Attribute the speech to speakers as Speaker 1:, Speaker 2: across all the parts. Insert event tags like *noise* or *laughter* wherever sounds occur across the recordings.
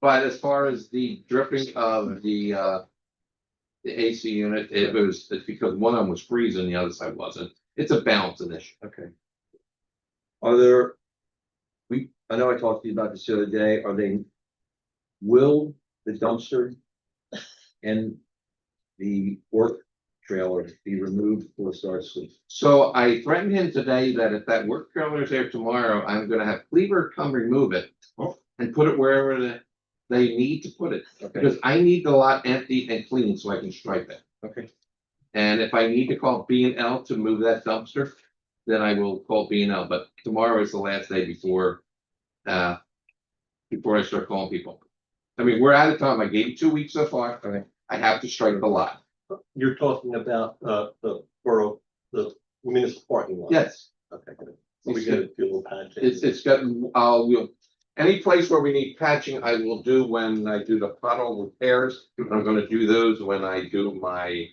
Speaker 1: But as far as the dripping of the uh. The AC unit, it was, it's because one of them was freezing, the other side wasn't. It's a balancing issue.
Speaker 2: Okay. Are there? We, I know I talked to you about this the other day, are they? Will the dumpster? And the work trailer be removed before it starts with?
Speaker 1: So I threatened him today that if that work trailer is there tomorrow, I'm gonna have Cleaver come remove it.
Speaker 2: Oh.
Speaker 1: And put it wherever the, they need to put it,
Speaker 2: Okay,
Speaker 1: because I need the lot empty and clean so I can stripe it.
Speaker 2: okay,
Speaker 1: And if I need to call B and L to move that dumpster, then I will call B and L, but tomorrow is the last day before. Uh. Before I start calling people. I mean, we're out of time. I gave you two weeks so far.
Speaker 2: Okay.
Speaker 1: I have to strike the lot.
Speaker 3: You're talking about, uh, the borough, the municipal parking lot?
Speaker 1: Yes,
Speaker 3: Okay, good. We gotta do a little patch.
Speaker 1: it's it's got, uh, we'll. Any place where we need patching, I will do when I do the puddle repairs. I'm gonna do those when I do my.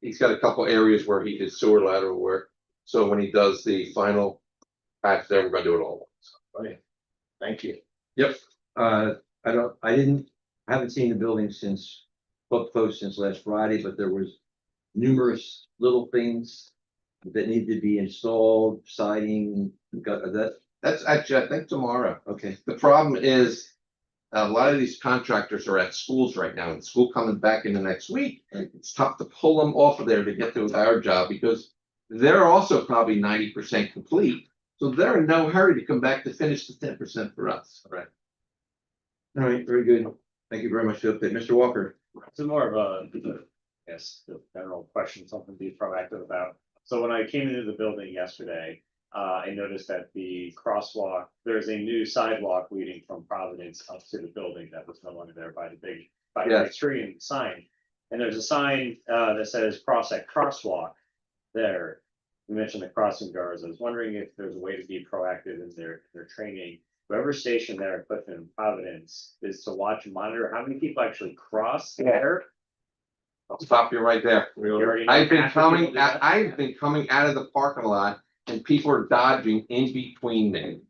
Speaker 1: He's got a couple areas where he did sewer lateral work, so when he does the final patch there, we're gonna do it all.
Speaker 3: Thank you.
Speaker 2: uh, I don't, I didn't, I haven't seen the building since, up close since last Friday, but there was. Numerous little things that need to be installed, siding, got that,
Speaker 1: That's actually, I think tomorrow.
Speaker 2: okay,
Speaker 1: The problem is. A lot of these contractors are at schools right now and school coming back in the next week.
Speaker 2: Right.
Speaker 1: It's tough to pull them off of there to get to our job because. They're also probably ninety percent complete, so they're in no hurry to come back to finish the ten percent for us. Right.
Speaker 2: all right, very good, thank you very much for the update, Mr. Walker.
Speaker 4: It's more of a, yes, the general question, something to be proactive about. So when I came into the building yesterday, uh, I noticed that the crosswalk, there's a new sidewalk leading from Providence up to the building that was no longer there by the big, by the big tree and sign. And there's a sign, uh, that says cross at crosswalk there. You mentioned the crossing guards. I was wondering if there's a way to be proactive in their, their training. Whoever's stationed there at Clifton and Providence is to watch and monitor how many people actually cross there
Speaker 1: I'll stop you right there.
Speaker 4: You already know
Speaker 1: I've been
Speaker 4: half the people
Speaker 1: coming,
Speaker 4: do
Speaker 1: I-
Speaker 4: that.
Speaker 1: I've been coming out of the parking lot and people are dodging in between
Speaker 4: *laughs*
Speaker 1: them.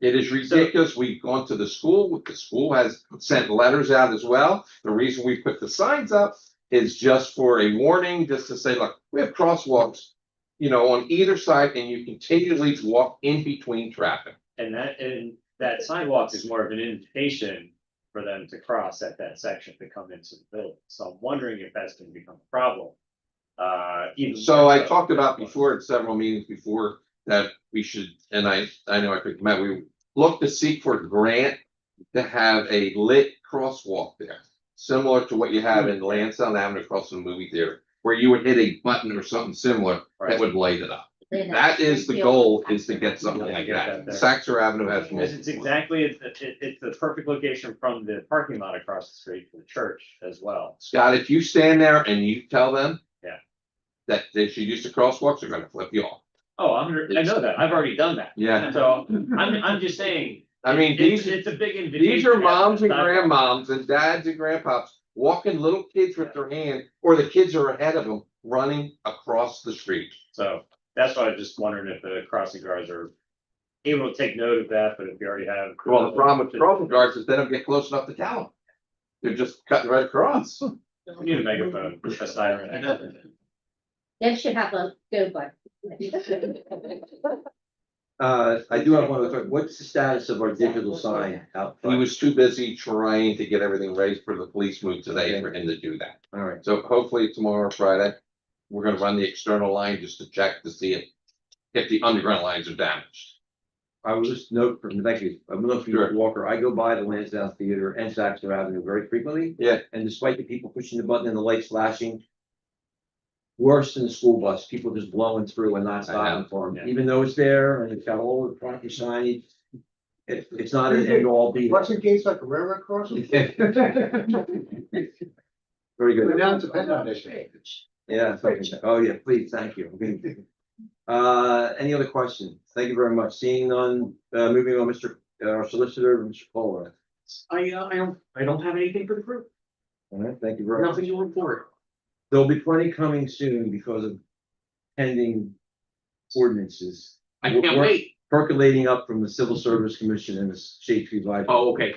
Speaker 1: It is ridiculous. We've gone to the school, the school has sent letters out as well. The reason we put the signs up is just for a warning, just to say, look, we have crosswalks. You know, on either side and you continually walk in between traffic.
Speaker 4: And that, and that sidewalk is more of an invitation for them to cross at that section to come into the building. So I'm wondering if that's gonna become a problem. Uh, even.
Speaker 1: So
Speaker 4: more
Speaker 1: I
Speaker 4: so
Speaker 1: talked
Speaker 4: than
Speaker 1: about
Speaker 4: it was.
Speaker 1: before, at several meetings before, that we should, and I, I know I think Matt, we look to seek for a grant. To have a lit crosswalk there, similar to what you have in Lansdowne Avenue across from the movie theater. Where you would hit a button or something similar that
Speaker 4: Right.
Speaker 1: would light it up.
Speaker 5: They know.
Speaker 1: That is the goal, is to get something
Speaker 4: Yeah,
Speaker 1: like
Speaker 4: get that
Speaker 1: that.
Speaker 4: there.
Speaker 1: Saxor Avenue has.
Speaker 4: Because it's
Speaker 1: multiple.
Speaker 4: exactly, it's, it- it's the perfect location from the parking lot across the street from the church as well.
Speaker 1: Scott, if you stand there and you tell them.
Speaker 4: Yeah.
Speaker 1: That they should use the crosswalks, they're gonna flip you off.
Speaker 4: Oh, I'm, I know that. I've already done that.
Speaker 1: Yeah,
Speaker 4: So I'm, I'm just saying.
Speaker 1: I mean,
Speaker 4: it's-
Speaker 1: these.
Speaker 4: It's a big invitation.
Speaker 1: These are
Speaker 4: to have
Speaker 1: moms and
Speaker 4: the sidewalk.
Speaker 1: grandmoms and dads and grandpops walking little kids with their hand, or the kids are ahead of them running across the street.
Speaker 4: So that's why I was just wondering if the crossing guards are able to take note of that, but if you already have.
Speaker 1: Well, the problem with crossing guards is they don't get close enough to tell them. They're just cutting right across.
Speaker 4: We need a megaphone, a siren.
Speaker 5: They should have a good one. *laughs*
Speaker 2: Uh, I do have one other, question. what's the status of our digital sign out
Speaker 1: He
Speaker 2: front?
Speaker 1: was too busy trying to get everything ready for the police move today for him to do that.
Speaker 2: All right,
Speaker 1: So hopefully tomorrow, Friday, we're gonna run the external line just to check to see if, if the underground lines are damaged.
Speaker 2: I will just note from, thank you, I will note from
Speaker 1: Sure.
Speaker 2: Walker, I go by the Lansdowne Theater and Saxon Avenue very frequently.
Speaker 1: Yeah.
Speaker 2: And despite the people pushing the button and the lights flashing. Worse than the school bus, people just blowing through and not stopping for them,
Speaker 4: Yeah.
Speaker 2: even though it's there and it's got all the proper signage. It, it's not an end all be.
Speaker 6: What's your case like a railroad
Speaker 2: *laughs*
Speaker 6: crossing?
Speaker 2: Very good.
Speaker 6: Now it's a PennDOT issue.
Speaker 2: Yeah, thank you. oh yeah, please, thank you. *laughs* Okay. Uh, any other questions? Thank you very much. Seeing none, uh, moving on, Mr. uh, Our solicitor, Mr. Kohler.
Speaker 3: I, uh, I don't, I don't have anything for the group,
Speaker 2: All right, thank you very much.
Speaker 3: to report.
Speaker 2: There'll be plenty coming soon because of pending ordinances
Speaker 3: I can't wait.
Speaker 2: percolating up from the Civil Service Commission and the State Tree Library.
Speaker 3: Oh, okay.